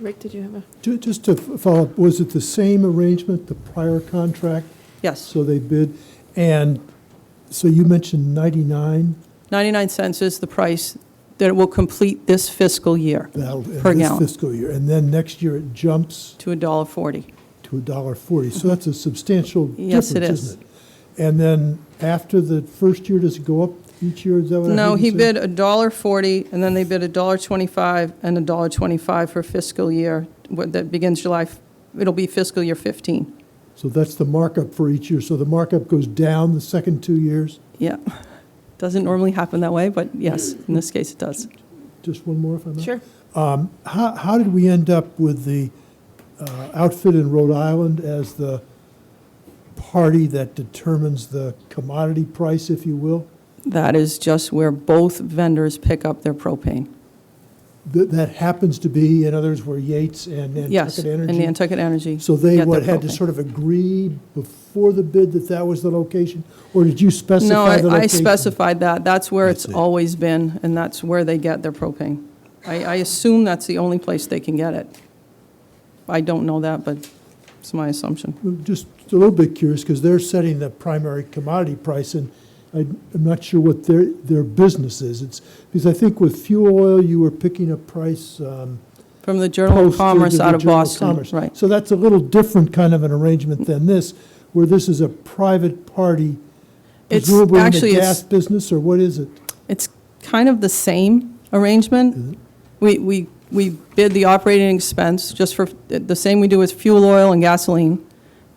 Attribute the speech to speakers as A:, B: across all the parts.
A: Rick, did you have a?
B: Ju- Just to f- follow up, was it the same arrangement, the prior contract?
C: Yes,
B: So they bid, and, so you mentioned 99?
C: 99 cents is the price that it will complete this fiscal year
B: That'll end
C: Per
B: this
C: gallon.
B: fiscal year, and then next year it jumps
C: to $1.40.
B: to $1.40. So that's a substantial difference,
C: Mm-hmm. Yes, it
B: isn't it?
C: is.
B: And then after the first year, does it go up each year? Is that what I heard
C: No,
B: you
C: he
B: say?
C: bid $1.40, and then they bid $1.25 and $1.25 for fiscal year, what- that begins July, f- it'll be fiscal year 15.
B: So that's the markup for each year. So the markup goes down the second two years?
C: Yeah. Doesn't normally happen that way, but yes, in this case, it does.
B: Just one more, if I may? Um, How, how did we end up with the uh, outfit in Rhode Island as the party that determines the commodity price, if you will?
C: That is just where both vendors pick up their propane.
B: That, that happens to be, in others, were Yates and
C: Yes,
B: Nantucket
C: and
B: Energy?
C: Nantucket Energy.
B: So they,
C: get
B: what,
C: their
B: had to
C: propane.
B: sort of agree before the bid that that was the location? Or did you specify the
C: No, I- I
B: location?
C: specified that. That's where
B: I
C: it's
B: see.
C: always been, and that's where they get their propane. I, I assume that's the only place they can get it. I don't know that, but it's my assumption.
B: I'm Just a little bit curious, because they're setting the primary commodity price, and I- I'm not sure what their, their business is. It's, because I think with fuel oil, you were picking a price um,
C: From the Journal of
B: posted
C: Commerce
B: to the
C: out of
B: Journal
C: Boston,
B: Commerce.
C: right.
B: So that's a little different kind of an arrangement than this, where this is a private party,
C: It's-
B: presumably in
C: actually,
B: the
C: it's-
B: gas business, or what is it?
C: It's kind of the same arrangement. We, we, we bid the operating expense just for, the same we do with fuel oil and gasoline,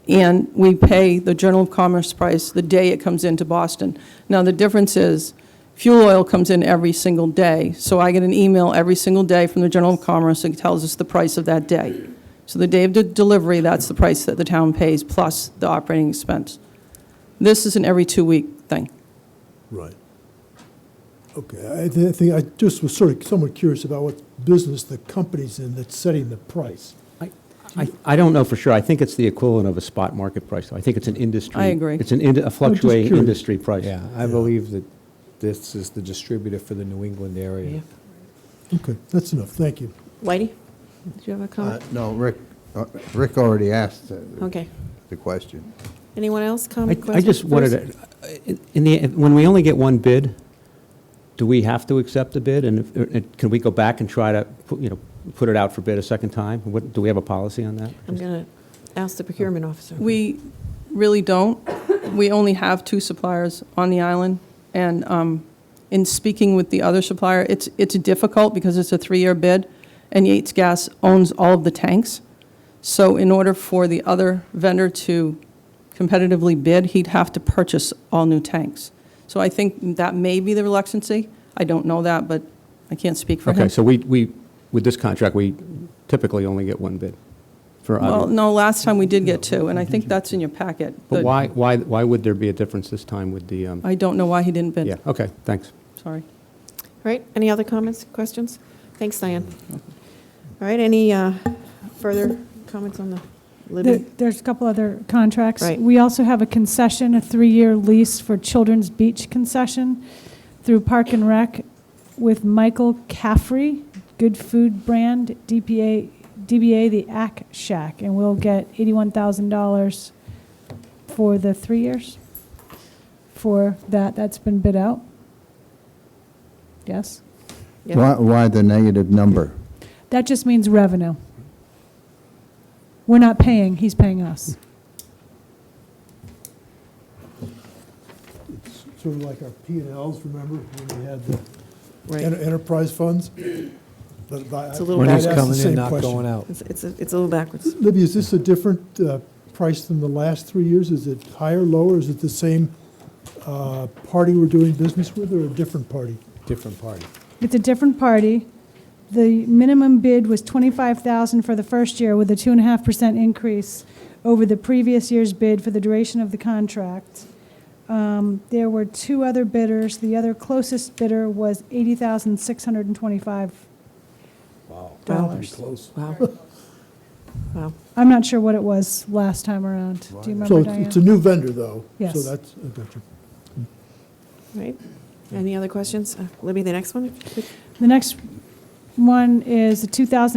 C: and we pay the Journal of Commerce price the day it comes into Boston. Now, the difference is, fuel oil comes in every single day, so I get an email every single day from the Journal of Commerce that tells us the price of that day. So the day of the delivery, that's the price that the town pays, plus the operating expense. This is an every two-week thing.
B: Right. Okay, I thi- I think, I just was sort of somewhat curious about what business the company's in that's setting the price.
D: I- I, I don't know for sure. I think it's the equivalent of a spot market price. I think it's an industry.
C: I agree.
D: It's an, ind- a fluctuating
B: curious.
D: industry price.
E: Yeah, I believe that this is the distributor for the New England area.
B: Okay, that's enough, thank you.
A: Whitey, did you have a
F: Uh,
A: comment?
F: No, Rick, uh, Rick already asked uh, the-
A: Okay.
F: the question.
A: Anyone else
D: I,
A: comment?
D: I just wanted to, in the, when we only get one bid, do we have to accept the bid? And if- and can we go back and try to, put you know, put it out for bid a second time? What, do we have a policy on that?
A: I'm going to ask the procurement officer.
C: We really don't. We only have two suppliers on the island, and um, in speaking with the other supplier, it's, it's difficult because it's a three-year bid, and Yates Gas owns all of the tanks. So in order for the other vendor to competitively bid, he'd have to purchase all new tanks. So I think that may be the reluctancy. I don't know that, but I can't speak for him.
D: Okay, so we, we, with this contract, we typically only get one bid for,
C: Well,
D: obvious-
C: no, last time we did get two, and I think that's in your packet.
D: but
C: The-
D: why, why, why would there be a difference this time with the, um,
C: I don't know why he didn't bid.
D: yeah, okay, thanks.
C: Sorry.
A: All right, any other comments, questions? Thanks, Diane. All right, any uh, further comments on the
G: There-
A: Libby?
G: There's a couple other contracts.
A: Right.
G: We also have a concession, a three-year lease for Children's Beach concession through Park and Rec with Michael Caffrey, Good Food Brand, DPA, DBA, the Ack Shack, and we'll get $81,000 for the three years for that. That's been bid out. Yes?
A: Yeah.
F: Why, why the negative number?
G: That just means revenue. We're not paying, he's paying us.
B: It's sort of like our P and Ls, remember, when we had the
A: Right,
B: enter- enterprise funds? But I-
A: It's a little
B: I'd
E: When
B: ask
E: it's
A: backwards.
B: the
E: coming
B: same
E: in, not
B: question.
E: going out.
A: it's, it's a it's a little backwards.
B: Libby, is this a different uh, price than the last three years? Is it higher, lower? Is it the same uh, party we're doing business with or a different party?
E: Different party.
G: It's a different party. The minimum bid was 25,000 for the first year with a 2.5% increase over the previous year's bid for the duration of the contract. Um, There were two other bidders. The other closest bidder was $80,625. Dollars.
E: Close.
A: Wow. Wow.
G: I'm not sure what it was last time around. Do you
B: So
G: remember,
B: it's-
G: Diane?
B: it's a new vendor, though. So
G: Yes.
B: that's, I got you.
A: All right, any other questions? Uh, Libby, the next one?
G: The next one is a 2000